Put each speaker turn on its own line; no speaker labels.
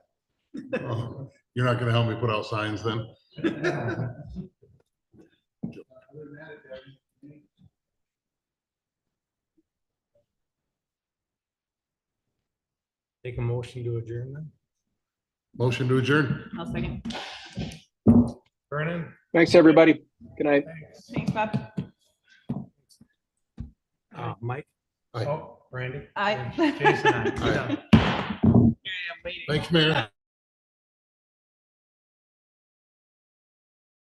You're not gonna help me put out signs then?
Take a motion to adjourn then.
Motion to adjourn.
I'll second.
Vernon?
Thanks, everybody. Good night.
Thanks, Bob.
Uh, Mike?
Aye.
Oh, Randy?
Aye.
And Jason, aye.
Aye. Thanks, Mayor.